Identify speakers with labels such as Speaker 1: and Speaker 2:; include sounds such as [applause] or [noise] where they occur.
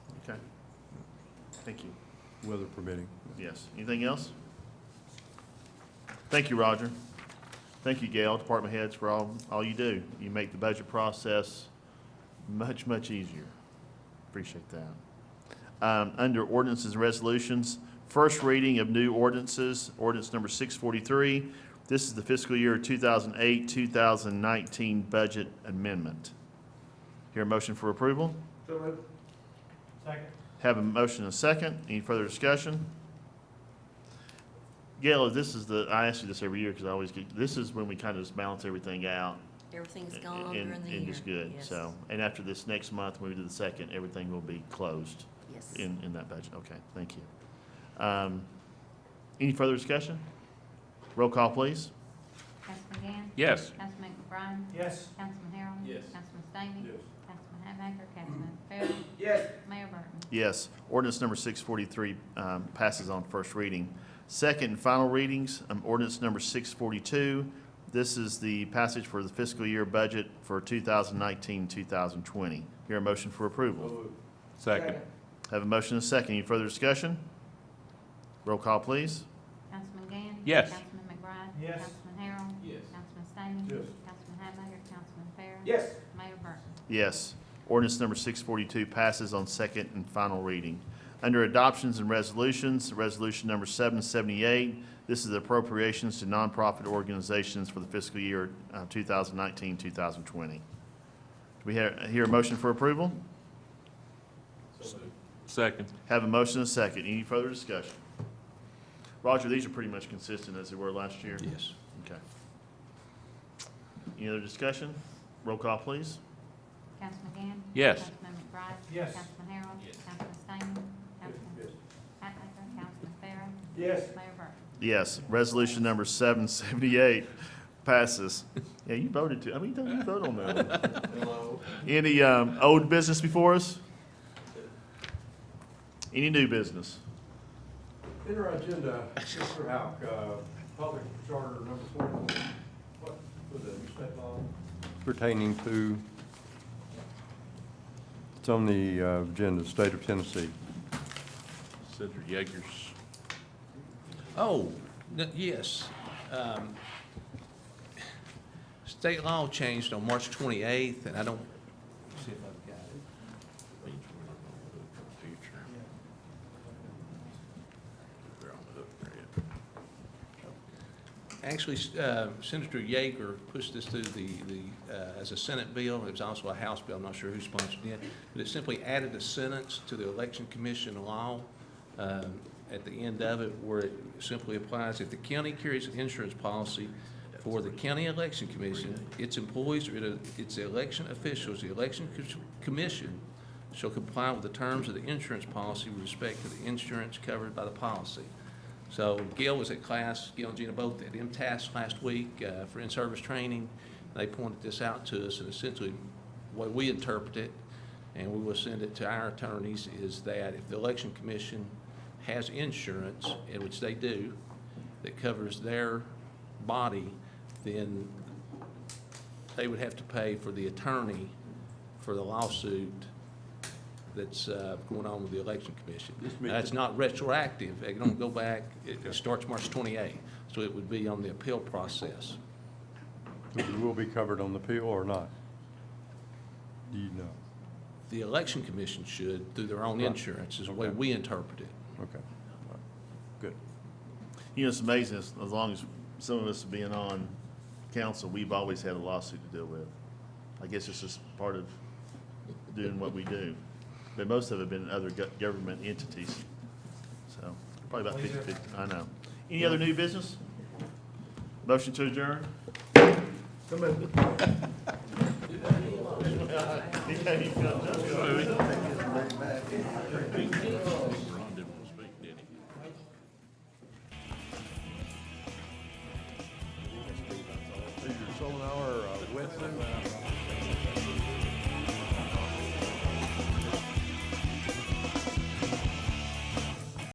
Speaker 1: Okay. Thank you.
Speaker 2: weather permitting.
Speaker 1: Yes. Anything else? Thank you, Roger. Thank you, Gail, department heads, for all, all you do. You make the budget process much, much easier. Appreciate that. Um, under ordinances and resolutions, first reading of new ordinances, ordinance number six forty-three. This is the fiscal year two thousand eight, two thousand nineteen budget amendment. Hear a motion for approval?
Speaker 3: So moved. Second.
Speaker 1: Have a motion and a second. Any further discussion? Gail, this is the, I ask you this every year because I always get, this is when we kind of just balance everything out.
Speaker 4: Everything's
Speaker 1: and-
Speaker 4: gone
Speaker 1: and-
Speaker 4: during the year.
Speaker 1: And just good, so. And after this next month, when we do the second, everything will be closed
Speaker 4: Yes. yes.
Speaker 1: in, in that budget. Okay, thank you. Um, Any further discussion? Roll call, please.
Speaker 5: Councilman Gann?
Speaker 6: Yes.
Speaker 5: Councilman McBride?
Speaker 3: Yes.
Speaker 5: Councilman Harrell?
Speaker 6: Yes.
Speaker 5: Councilman Stamey? Councilman Hatmaker? Councilman Farrell?
Speaker 3: Yes.
Speaker 5: Mayor Burton?
Speaker 1: Yes, ordinance number six forty-three um, passes on first reading. Second and final readings, um, ordinance number six forty-two. This is the passage for the fiscal year budget for 2019-2020. Hear a motion for approval.
Speaker 6: Second.
Speaker 1: Have a motion and a second. Any further discussion? Roll call, please.
Speaker 5: Councilman Gann?
Speaker 6: Yes.
Speaker 5: Councilman McBride?
Speaker 3: Yes.
Speaker 5: Councilman Harrell?
Speaker 6: Yes.
Speaker 5: Councilman Stamey?
Speaker 3: Yes.
Speaker 5: Councilman Hatmaker? Councilman Farrell?
Speaker 3: Yes.
Speaker 5: Mayor Burton?
Speaker 1: Yes. Ordinance number 642 passes on second and final reading. Under adoptions and resolutions, resolution number 778, this is appropriations to nonprofit organizations for the fiscal year uh, 2019, 2020. Do we hear hear a motion for approval?
Speaker 6: Second.
Speaker 1: Have a motion and a second. Any further discussion? Roger, these are pretty much consistent as they were last year.
Speaker 6: Yes.
Speaker 1: Okay. Any other discussion? Roll call, please.
Speaker 5: Councilman Gann?
Speaker 6: Yes.
Speaker 5: Councilman McBride?
Speaker 3: Yes.
Speaker 5: Councilman Harrell?
Speaker 6: Yes.
Speaker 5: Councilman Stamey? Councilman Hatmaker? Councilman Farrell?
Speaker 3: Yes.
Speaker 5: Mayor Burton?
Speaker 1: Yes, resolution number seven seventy-eight passes. Yeah, you voted to, I mean, don't you vote on that? one? Any, um, old business before us? Any new business?
Speaker 7: In our agenda, Mr. Houck, uh, public charter number four, what was it, you said, Bob?
Speaker 2: Pertaining to, it's on the uh, agenda, state of Tennessee.
Speaker 6: Senator Yeager's.
Speaker 8: Oh, n- yes. Um, State law changed on March 28th, and I don't, see if I've got it. Actually, s- uh, Senator Yeager pushed this through the, the, uh, as a Senate bill, it was also a House bill, I'm not sure who sponsored it, but it simply added a sentence to the Election Commission law um, at the end of it where it simply applies, if the county carries an insurance policy for the county election commission, its employees or it- its election officials, the election co- commission shall comply with the terms of the insurance policy with respect to the insurance covered by the policy. So Gail was at class, Gail and Gina both at MTS last week uh, for in-service training. They pointed this out to us, and essentially, the way we interpret it, and we will send it to our attorneys, is that if the election commission has insurance, and which they do, that covers their body, then they would have to pay for the attorney for the lawsuit that's uh, going on with the election commission. Now, It's not retroactive, it don't go back, it it starts March 28th, so it would be on the appeal process.
Speaker 2: It will be covered on the appeal or not? Do you know?
Speaker 8: The election commission should, through their own
Speaker 2: Right.
Speaker 8: insurance, is the way
Speaker 2: Okay.
Speaker 8: we interpret it.
Speaker 2: Okay. Good.
Speaker 1: You know, it's amazing, as, as long as some of us have been on council, we've always had a lawsuit to deal with. I guess it's just part of doing what we do. But most of it have been other go- government entities. So, probably about fifty, I know. Any other new business? Motion to adjourn? [laughs]
Speaker 6: Ron didn't want to speak, did he?
Speaker 2: Is your solar hour Wednesday?